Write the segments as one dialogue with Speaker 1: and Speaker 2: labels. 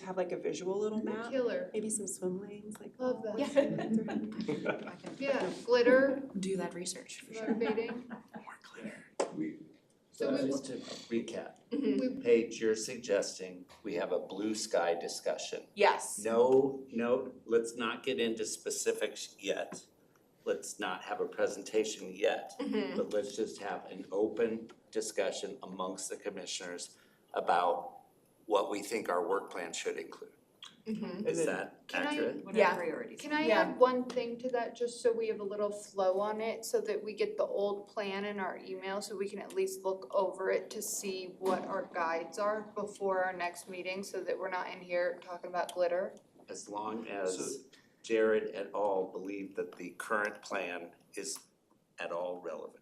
Speaker 1: have like a visual little map,
Speaker 2: Killer,
Speaker 1: maybe some swim lanes, like.
Speaker 2: love that.
Speaker 3: Yeah. I can
Speaker 2: Yeah, glitter,
Speaker 3: do that research for sure.
Speaker 2: motivating.
Speaker 4: We,
Speaker 2: So
Speaker 5: So
Speaker 2: we
Speaker 5: just to recap,
Speaker 6: Mm-hmm.
Speaker 2: We-
Speaker 5: Paige, you're suggesting we have a blue sky discussion.
Speaker 3: Yes.
Speaker 5: No, no, let's not get into specifics yet. Let's not have a presentation yet.
Speaker 6: Mm-hmm.
Speaker 5: But let's just have an open discussion amongst the commissioners about what we think our work plan should include.
Speaker 6: Mm-hmm.
Speaker 5: Is
Speaker 4: And then-
Speaker 5: that
Speaker 2: Can I-
Speaker 5: accurate?
Speaker 3: What are
Speaker 2: priorities? Can I
Speaker 3: Yeah.
Speaker 2: add one thing to that, just so we have a little flow on it, so that we get the old plan in our email, so we can at least look over it to see what our guides are before our next meeting, so that we're not in here talking about glitter.
Speaker 5: As long
Speaker 4: So-
Speaker 5: as Jared et al. believe that the current plan is at all relevant.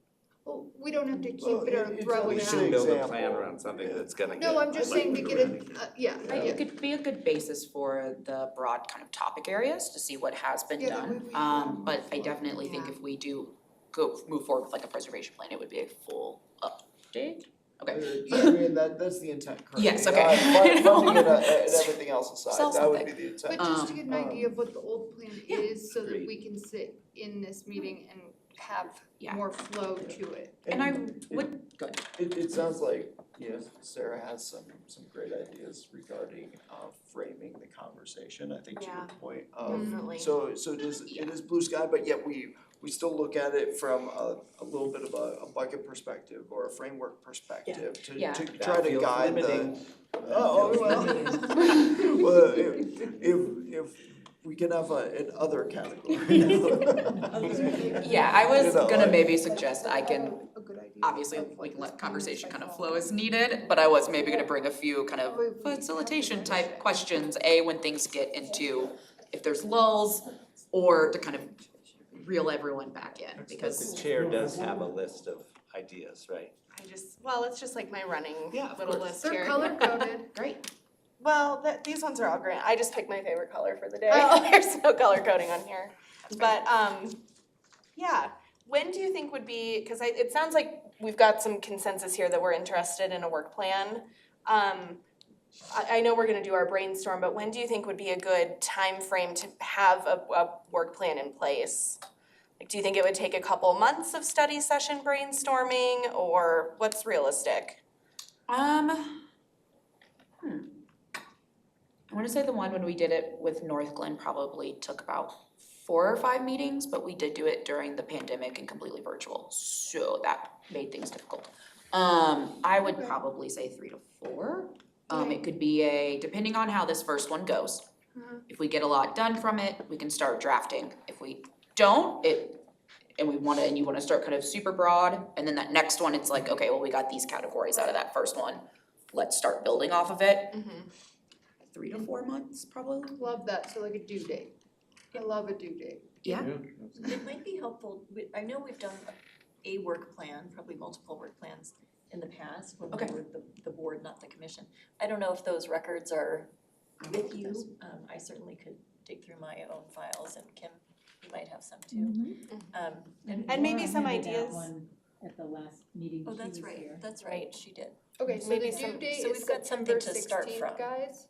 Speaker 2: Well, we don't have to
Speaker 4: Well,
Speaker 2: keep it or
Speaker 4: it- it's
Speaker 2: throw
Speaker 5: We
Speaker 2: it
Speaker 4: always
Speaker 2: out.
Speaker 5: should build a plan
Speaker 4: example.
Speaker 5: around something
Speaker 4: Yeah.
Speaker 5: that's gonna get.
Speaker 2: No, I'm just
Speaker 5: like,
Speaker 2: saying to get a, uh, yeah,
Speaker 3: I think
Speaker 2: yeah.
Speaker 3: it could be a good basis for the broad kind of topic areas to see what has been
Speaker 2: Yeah, that
Speaker 3: done.
Speaker 2: way we-
Speaker 3: Um, but I definitely think if we do go, move forward with like a preservation plan, it would be a full update. Okay.
Speaker 4: I mean, that, that's the intent currently.
Speaker 3: Yes, okay.
Speaker 4: Uh, fun-
Speaker 3: I don't
Speaker 4: Funding and, uh,
Speaker 3: wanna
Speaker 4: and everything else
Speaker 3: sell
Speaker 4: aside, that would be the
Speaker 2: But
Speaker 4: intent.
Speaker 2: just to get an
Speaker 4: Um,
Speaker 2: idea of what the old plan
Speaker 3: yeah.
Speaker 2: is, so that
Speaker 5: Agreed.
Speaker 2: we can sit in this meeting and have
Speaker 3: Yeah.
Speaker 2: more flow to it.
Speaker 3: And I
Speaker 4: it-
Speaker 3: would, go ahead.
Speaker 4: It, it sounds like, you know, Sarah has some, some great ideas regarding, uh, framing the conversation, I think to your
Speaker 3: Yeah.
Speaker 4: point of,
Speaker 3: Definitely.
Speaker 4: So, so it is, it is blue sky, but yet we, we still look at it from a, a little bit of a, a bucket perspective or a framework perspective to,
Speaker 3: Yeah.
Speaker 4: to
Speaker 5: That
Speaker 4: try to
Speaker 5: feels
Speaker 4: guide the.
Speaker 5: limiting.
Speaker 4: Oh, oh, well. Well, if, if, if we can have a, an other category now.
Speaker 3: Yeah, I was
Speaker 4: You know,
Speaker 3: gonna
Speaker 4: like-
Speaker 3: maybe suggest I can,
Speaker 2: A good idea.
Speaker 3: obviously, we can let conversation kind of flow as needed, but I was maybe gonna bring a few kind of facilitation type questions, A, when things get into, if there's lulls, or to kind of reel everyone back in,
Speaker 5: Because
Speaker 3: because
Speaker 5: the chair does have a list of ideas, right?
Speaker 6: I just, well, it's just like my running
Speaker 5: Yeah, of
Speaker 6: little
Speaker 5: course.
Speaker 6: list
Speaker 2: They're
Speaker 6: here.
Speaker 2: color coded.
Speaker 3: Great.
Speaker 6: Well, that, these ones are all grand. I just picked my favorite color for the day.
Speaker 2: Oh.
Speaker 6: There's no color coding on here. But, um, yeah, when do you think would be, because I, it sounds like we've got some consensus here that we're interested in a work plan. Um, I, I know we're gonna do our brainstorm, but when do you think would be a good time frame to have a, a work plan in place? Like, do you think it would take a couple months of study session brainstorming, or what's realistic?
Speaker 3: Um, hmm. I wanna say the one when we did it with North Glen probably took about four or five meetings, but we did do it during the pandemic and completely virtual, so that made things difficult. Um, I would
Speaker 2: Okay.
Speaker 3: probably say three to four. Um,
Speaker 2: Okay.
Speaker 3: it could be a, depending on how this first one goes.
Speaker 2: Mhm.
Speaker 3: If we get a lot done from it, we can start drafting. If we don't, it, and we wanna, and you wanna start kind of super broad, and then that next one, it's like, okay, well, we got these categories out of that first one. Let's start building off of it. Three to four months, probably.
Speaker 2: Love that, so like a due date. I love a due date.
Speaker 7: It might be helpful, we, I know we've done a work plan, probably multiple work plans in the past when
Speaker 3: Okay.
Speaker 7: we were the, the board, not the commission. I don't know if those records are with you, um, I certainly could dig through my own files and Kim, you might have some too. Um,
Speaker 6: And maybe
Speaker 8: Laura
Speaker 6: some
Speaker 8: handed out
Speaker 6: ideas.
Speaker 8: one At the last meeting
Speaker 7: oh,
Speaker 8: she
Speaker 7: that's
Speaker 8: was
Speaker 7: right,
Speaker 8: here.
Speaker 7: that's right, she did.
Speaker 2: Okay, so
Speaker 7: Maybe
Speaker 2: the due
Speaker 7: some-
Speaker 2: date
Speaker 7: so
Speaker 2: is
Speaker 7: we've got something
Speaker 2: September
Speaker 7: to start
Speaker 2: sixteenth,
Speaker 7: from.
Speaker 2: guys.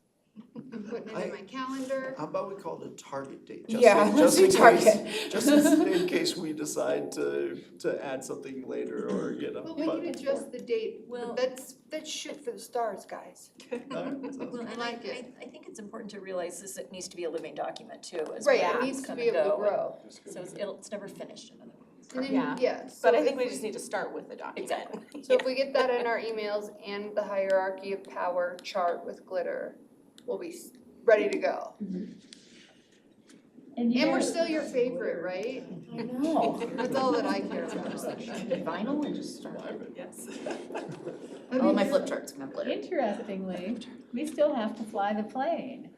Speaker 2: I'm putting it in my calendar.
Speaker 4: How about we call it a target date? just
Speaker 3: Yeah,
Speaker 4: in-
Speaker 3: let's
Speaker 4: just in
Speaker 3: do
Speaker 4: case-
Speaker 3: target.
Speaker 4: Just in in case we decide to, to add something later or, you know,
Speaker 2: Well,
Speaker 4: but.
Speaker 2: we can adjust the date,
Speaker 7: Well-
Speaker 2: but that's, that's shit for the stars, guys.
Speaker 4: Alright, sounds good.
Speaker 7: Well, and
Speaker 2: I
Speaker 7: I,
Speaker 2: like it.
Speaker 7: I, I think it's important to realize this, it needs to be a living document too, as
Speaker 2: Right, it
Speaker 7: programs
Speaker 2: needs to
Speaker 7: come
Speaker 2: be
Speaker 7: and
Speaker 2: able to
Speaker 7: go, and-
Speaker 2: grow.
Speaker 7: So it's, it'll, it's never finished, in other words.
Speaker 2: And then,
Speaker 6: Yeah.
Speaker 2: yeah, so
Speaker 6: But I think
Speaker 2: if
Speaker 6: we just need to start with the document.
Speaker 7: Exactly.
Speaker 2: So if we get that in our emails and the hierarchy of power chart with glitter, we'll be s- ready to go.
Speaker 8: you
Speaker 2: And we're
Speaker 8: know-
Speaker 2: still your favorite, right?
Speaker 8: I know.
Speaker 2: That's all that I care about.
Speaker 8: Vinyl and just start.
Speaker 6: Yes.
Speaker 3: All my flip charts can have glitter.
Speaker 8: Interestingly, we still have to fly the plane.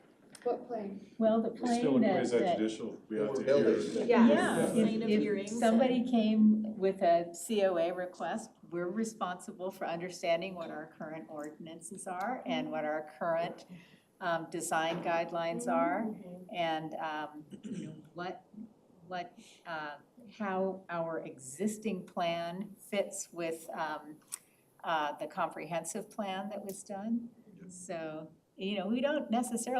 Speaker 2: What plane?
Speaker 8: Well, the
Speaker 9: We're still
Speaker 8: plane
Speaker 9: in
Speaker 8: that, that,
Speaker 9: quasi-judicial, we have
Speaker 4: We're
Speaker 9: to
Speaker 4: building.
Speaker 9: hear.
Speaker 6: Yeah.
Speaker 8: yeah,
Speaker 7: Plane of
Speaker 8: if, if
Speaker 7: hearings
Speaker 8: somebody came with a COA request, we're responsible for understanding what our current ordinances are and what our current, um, design guidelines are. and, um, you know, what, what, uh, how our existing plan fits with, um, uh, the comprehensive plan that was done. So, you know, we don't necessarily